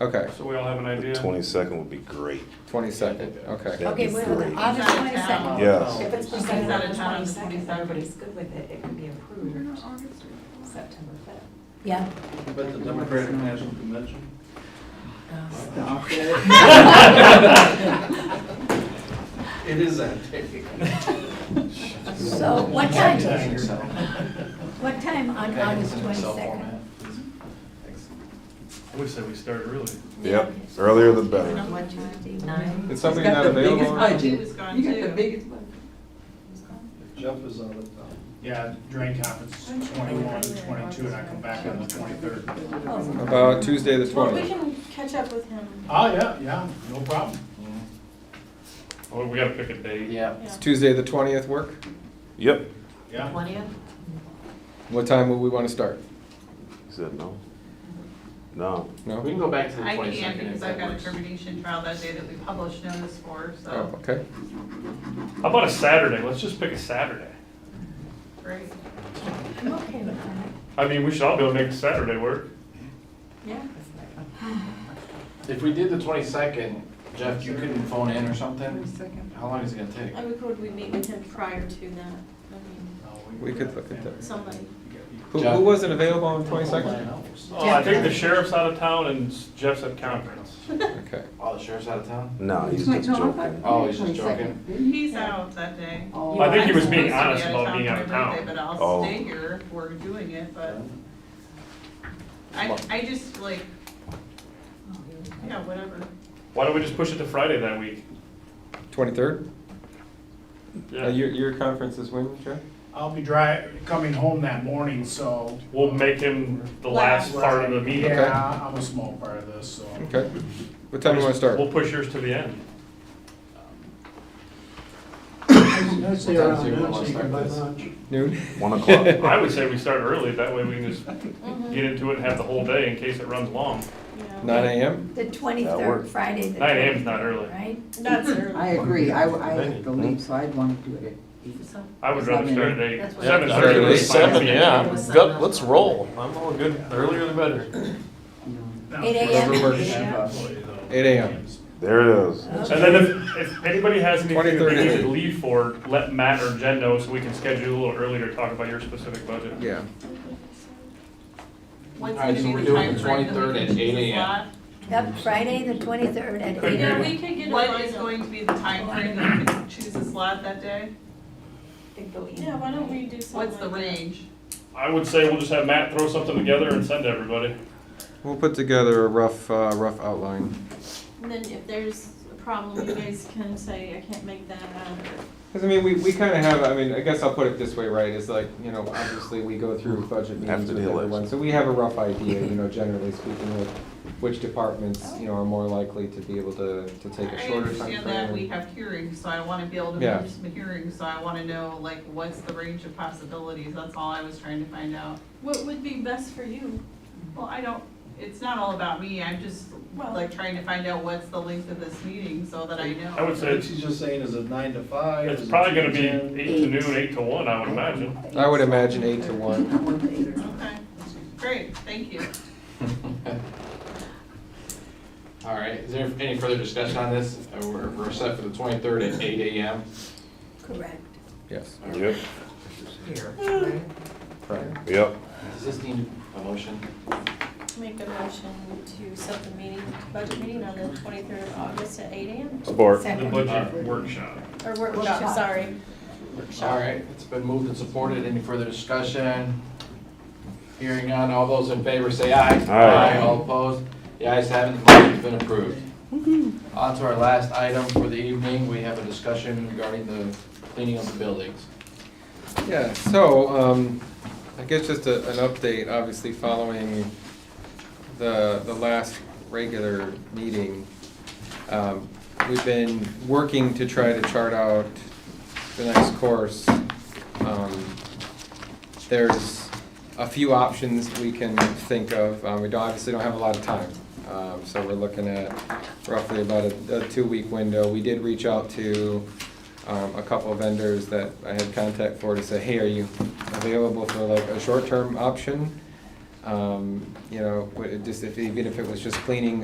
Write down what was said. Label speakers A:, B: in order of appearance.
A: Okay,
B: So we all have an idea?
C: Twenty-second would be great.
A: twenty-second, okay.
C: That'd be
D: Okay, wait, wait,
C: great.
D: August
E: He's out of
D: 22nd.
E: town.
C: Yes.
D: If it's
E: He's
D: presented
E: out
D: on
E: of
D: the
E: town on the
D: 22nd,
E: 23rd.
D: everybody's good with it, it can be approved September 5th.
E: Yeah.
F: But the Democratic National Convention? Stop It is that day.
E: So what time, what time on August twenty-second?
B: We said we start early.
C: Yep, earlier the better.
E: What Tuesday?
D: Nine.
A: Is somebody not available?
E: budget. You got the biggest one.
F: Jeff is out of town.
G: Yeah, drain conference is 21, 22, and I come back on the twenty-third.
A: About Tuesday the
H: Well, Oh. we
A: twentieth.
H: can catch up with him.
G: Oh, yeah, yeah, no problem.
B: Well, Oh, we gotta pick a date.
I: Yeah.
H: Yeah.
A: Does Tuesday the twentieth work?
C: Yep.
G: Yeah,
D: Twentieth?
A: What time would we wanna start?
C: He said no. No.
A: No?
I: We can go back to the
E: I
I: twenty
E: can,
I: second if
E: because I've
I: that
E: got a
I: works.
E: termination trial that day that we published notice for,
A: Oh,
E: so,
A: okay.
B: How about a Saturday? Let's just pick a Saturday.
E: great.
D: I'm okay with that.
B: I mean, we should all be able to make Saturday work.
D: Yeah.
I: If we did the twenty second, Jeff, you couldn't phone in or something?
E: Second.
I: How long is it gonna take?
H: I mean, could we meet with him prior to that? I mean,
A: We could look at that.
H: somebody.
A: Who, who wasn't available on the twenty-second?
B: Oh, I think the sheriff's out of town and Jeff's at conference.
A: Okay.
I: Oh, the sheriff's out of town?
C: No, he's just joking.
I: Oh, he's just joking.
E: He's out that day.
B: I think he was being
E: I'm
B: honest
E: supposed to be
B: about being out of
E: for my birthday,
B: town.
E: But I'll
C: Oh.
E: stay here if we're doing it, but I, I just like, oh, yeah, whatever.
B: Why don't we just push it to Friday that week?
A: Twenty-third? Uh,
B: Yeah.
A: Your, your conference is when, Jeff?
G: I'll be dri, coming home that morning, so.
B: We'll make him the last
H: Last.
B: part of the meeting.
G: Yeah, I'm a small part of this, so.
A: Okay. What time do you wanna start?
B: We'll push yours to the end.
F: Let's
I: say around noon, so you can buy lunch.
A: Noon?
C: One o'clock.
B: I would say we start early, that way we can just
D: Mm-hmm.
B: get into it and have the whole day in case it runs long.
H: Yeah.
A: Nine AM?
E: The
C: That
E: twenty-third,
C: works.
E: Friday, the
B: Nine AM is not early.
E: right?
H: That's early.
J: I agree, I, I have to leave, so I'd want to do it at eight.
B: I would rather start at eight.
D: That's what-
B: Seven
A: Yeah,
B: thirty was fine with
A: seven,
B: me.
D: Good, let's roll.
I: I'm all good, earlier the better.
J: you know.
G: Now,
E: Eight
A: Whatever
E: AM?
A: works. Eight AM.
C: There it is.
B: And then if, if anybody has anything that
A: 23rd.
B: they need to leave for, let Matt or Jen know so we can schedule a little earlier to talk about your specific budget.
A: Yeah.
E: What's
I: All right,
E: gonna
I: so
E: be
I: we're
E: the
I: doing
E: time
I: the
E: frame that we
I: 23rd
E: can
I: at
E: choose the
I: 8 a.m.
E: slot?
D: Yep, Friday, the twenty-third at
B: Could
D: eight.
B: be.
H: Yeah,
D: AM.
H: we could get a.
E: What is
H: lineup.
E: going to be the time frame that we can choose a slot that day?
H: Yeah, why don't we do something
E: What's the
H: like that?
E: range?
B: I would say we'll just have Matt throw something together and send to everybody.
A: We'll put together a rough, uh, rough outline.
H: And then if there's a problem, you guys can say, I can't make that out.
A: Because I mean, we, we kind of have, I mean, I guess I'll put it this way, right, is like, you know, obviously we go through budget meetings
C: After the
A: with everyone.
C: election.
A: So we have a rough idea, you know, generally speaking, with which departments, you know, are more likely to be able to, to take a
E: I
A: shorter time
E: understand that we
A: frame.
E: have hearings, so I wanna be able to
A: Yeah.
E: move some hearings, so I wanna know, like, what's the range of possibilities, that's all I was trying to find out.
H: What would be best for you?
E: Well, I don't, it's not all about me, I'm just,
H: Well-
E: like, trying to find out what's the length of this meeting, so that I know.
B: I would say
F: What
B: it's,
F: she's just saying, is it nine to five?
B: it's
F: Is it
B: probably
F: two
B: gonna be
F: ten?
B: eight to noon, eight to one, I would imagine.
A: I would imagine eight to one.
J: I want the eight or
E: Okay, great, thank you.
I: All right, is there any further discussion on this? Uh, We're, we're set for the twenty-third at eight AM.
D: Correct.
A: Yes,
C: Yep,
J: here, right?
A: right.
C: yep.
I: Does this need a motion?
H: Make a motion to set the meeting, budget meeting on the twenty-third of August at eight AM,
C: Support.
B: The
D: Second.
B: budget workshop.
H: or workshop, sorry.
I: All right, it's been moved and supported. Any further discussion? Hearing none, all those in favor say aye.
C: Aye.
I: All opposed? The ayes have it, the motion's been approved. On to our last item for the evening, we have a discussion regarding the cleaning of the buildings.
A: Yeah, so, um, I guess just a, an update, obviously following the, the last regular meeting. Um, we've been working to try to chart out the next course. Um, there's a few options we can think of. Um, we don't, obviously don't have a lot of time. Um, so we're looking at roughly about a, a two-week window. We did reach out to, um, a couple of vendors that I had contact for to say, hey, are you available for like a short-term option? Um, you know, what- it just if, even if it was just cleaning